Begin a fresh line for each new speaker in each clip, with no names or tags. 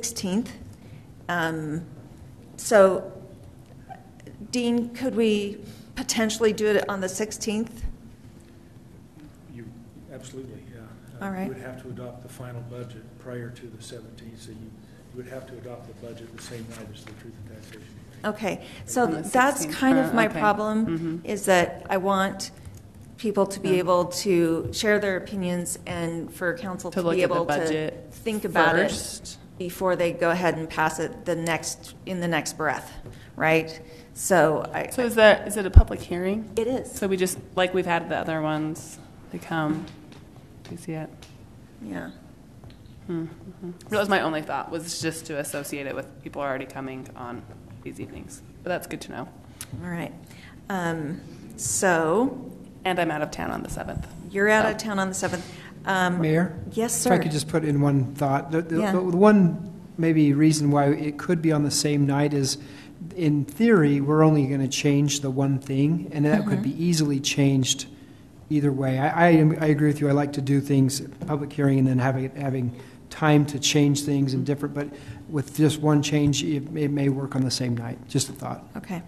16th. Um, So, Dean, could we potentially do it on the 16th?
You, absolutely, yeah. Uh,
All right.
You would have to adopt the final budget prior to the 17th, so you, you would have to adopt the budget the same night as the truth and taxation hearing.
Okay, so
On the
that's
16th,
kind of
uh,
my
okay.
problem,
Mhm.
is that I want people to be
Yeah.
able to share their opinions and for council
To
to
look
be
at the
able to
budget
think about it
first.
before they go ahead and pass it the next, in the next breath, right? So I,
So is that, is it a public hearing?
it is,
So we just, like we've had the other ones, they come, we see it. Hmm,
yeah.
That was my only thought, was just to associate it with people already coming on these evenings. But that's good to know.
All right. Um, So
And I'm out of town on the 7th.
you're out of town on the 7th. Um,
Mayor?
Yes,
If
sir.
I could just put in one thought, the, the,
Yeah.
the one maybe reason why it could be on the same night is, in theory, we're only going to change the one thing, and that could
Mm-hmm.
be easily changed either way. I, I, am- I agree with you. I like to do things public hearing and then having having time to change things and different. But with just one change, it, may- it may work on the same night. Just a thought.
Okay.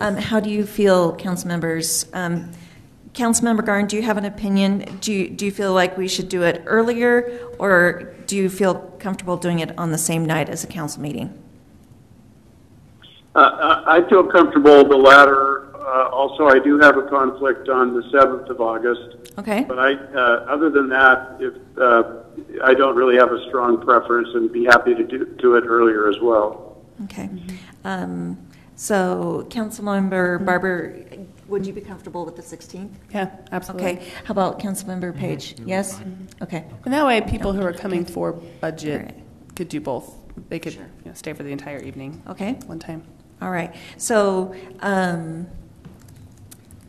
Um, How do you feel, council members? Um, Councilmember Garn, do you have an opinion? Do you, do you feel like we should do it earlier, or do you feel comfortable doing it on the same night as a council meeting?
Uh, I I feel comfortable the latter. Uh, Also, I do have a conflict on the 7th of August,
Okay?
but I, uh, other than that, if, uh, I don't really have a strong preference and be happy to do do it earlier as well.
Okay.
Mm-hmm.
Um, So, Councilmember Barber, would you be comfortable with the 16th?
Yeah, absolutely.
Okay. How about Councilmember
Mm-hmm.
Page? Yes? Okay.
And that way, people who are coming for budget
Right.
could do both. They could, you know, stay for the entire evening.
Okay.
One time.
All right, so um,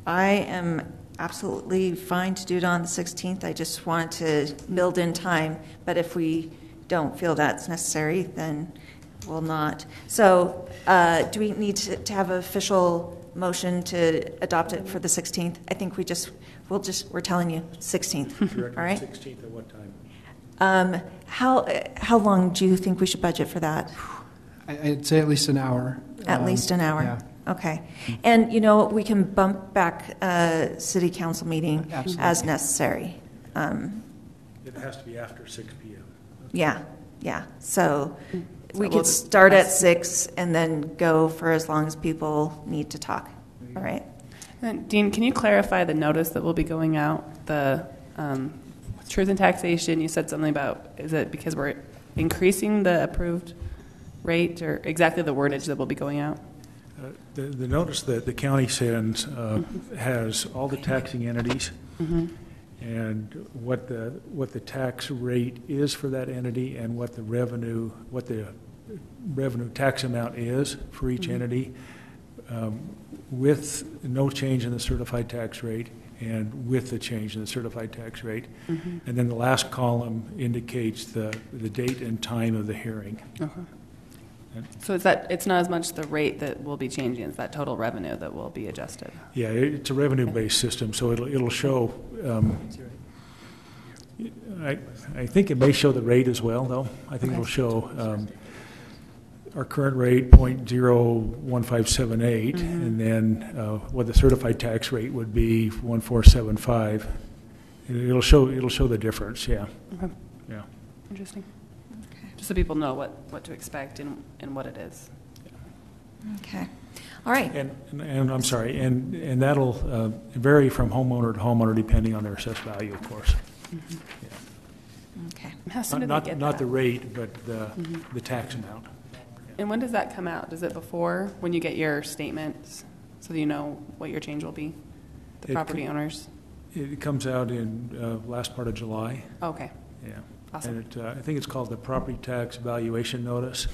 I am absolutely fine to do it on the 16th. I just want to build in time, but if we don't feel that's necessary, then we'll not. So uh, do we need to to have an official motion to adopt it for the 16th? I think we just, we'll just, we're telling you, 16th,
Correct,
all right?
16th at what time?
Um, How, uh, how long do you think we should budget for that?
I, I'd say at least an hour.
At
Um,
least an
Yeah.
hour? Okay. And, you know, we can bump back uh city council meeting as
Absolutely.
necessary. Um,
It has to be after 6 PM.
Yeah, yeah. So we
we'll
could
just-
start at six and then go for as long as people need to talk. All right?
And Uh, Dean, can you clarify the notice that will be going out? The um, truth and taxation, you said something about, is it because we're increasing the approved rate or exactly the wordage that will be going out?
Uh, The, the notice that the county sends uh, has all the taxing entities and what the, what the tax rate is for that entity and what the revenue, what the revenue tax amount is for each entity um, with no change in the certified tax rate and with the change in the certified tax rate. And then the last column indicates the, the date and time of the hearing.
Uh-huh. So is that, it's not as much the rate that will be changing, it's that total revenue that will be adjusted?
Yeah, it- it's a revenue-based system, so it'll, it'll show, um, I, I think it may show the rate as well, though. I think it'll show um, our current rate, point zero one five seven eight, and then uh, what the certified tax rate would be, one four seven five. It'll show, it'll show the difference, yeah,
Okay,
yeah.
Interesting. Just so people know what, what to expect and, and what it is.
Okay. All right.
And, and- and I'm sorry, and, and that'll uh, vary from homeowner to homeowner depending on their assessed value, of course.
Okay.
How soon do they
Not,
get
not the
that?
rate, but the, the tax amount.
And when does that come out? Does it before, when you get your statements, so that you know what your change will be?
It
The property
could-
owners?
It comes out in uh, last part of July,
Okay.
yeah.
Awesome.
And it, uh, I think it's called the property tax valuation notice.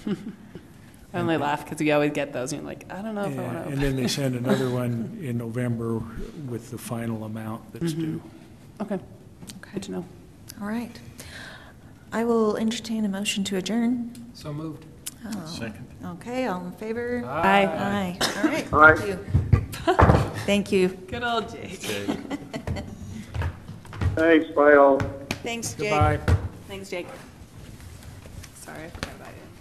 I only laugh because we always get those, and you're like, I don't know if I
And
want
and
to.
then they send another one in November with the final amount that's due.
Okay,
Okay.
good to know.
All right. I will entertain a motion to adjourn.
So moved.
Second. Okay, all in favor? Aye.
Bye.
All right.
All right.
Thank you. Thank you.
Good old Jake.
Thanks, bye all.
Thanks, Jake.
Goodbye.
Thanks, Jake. Sorry.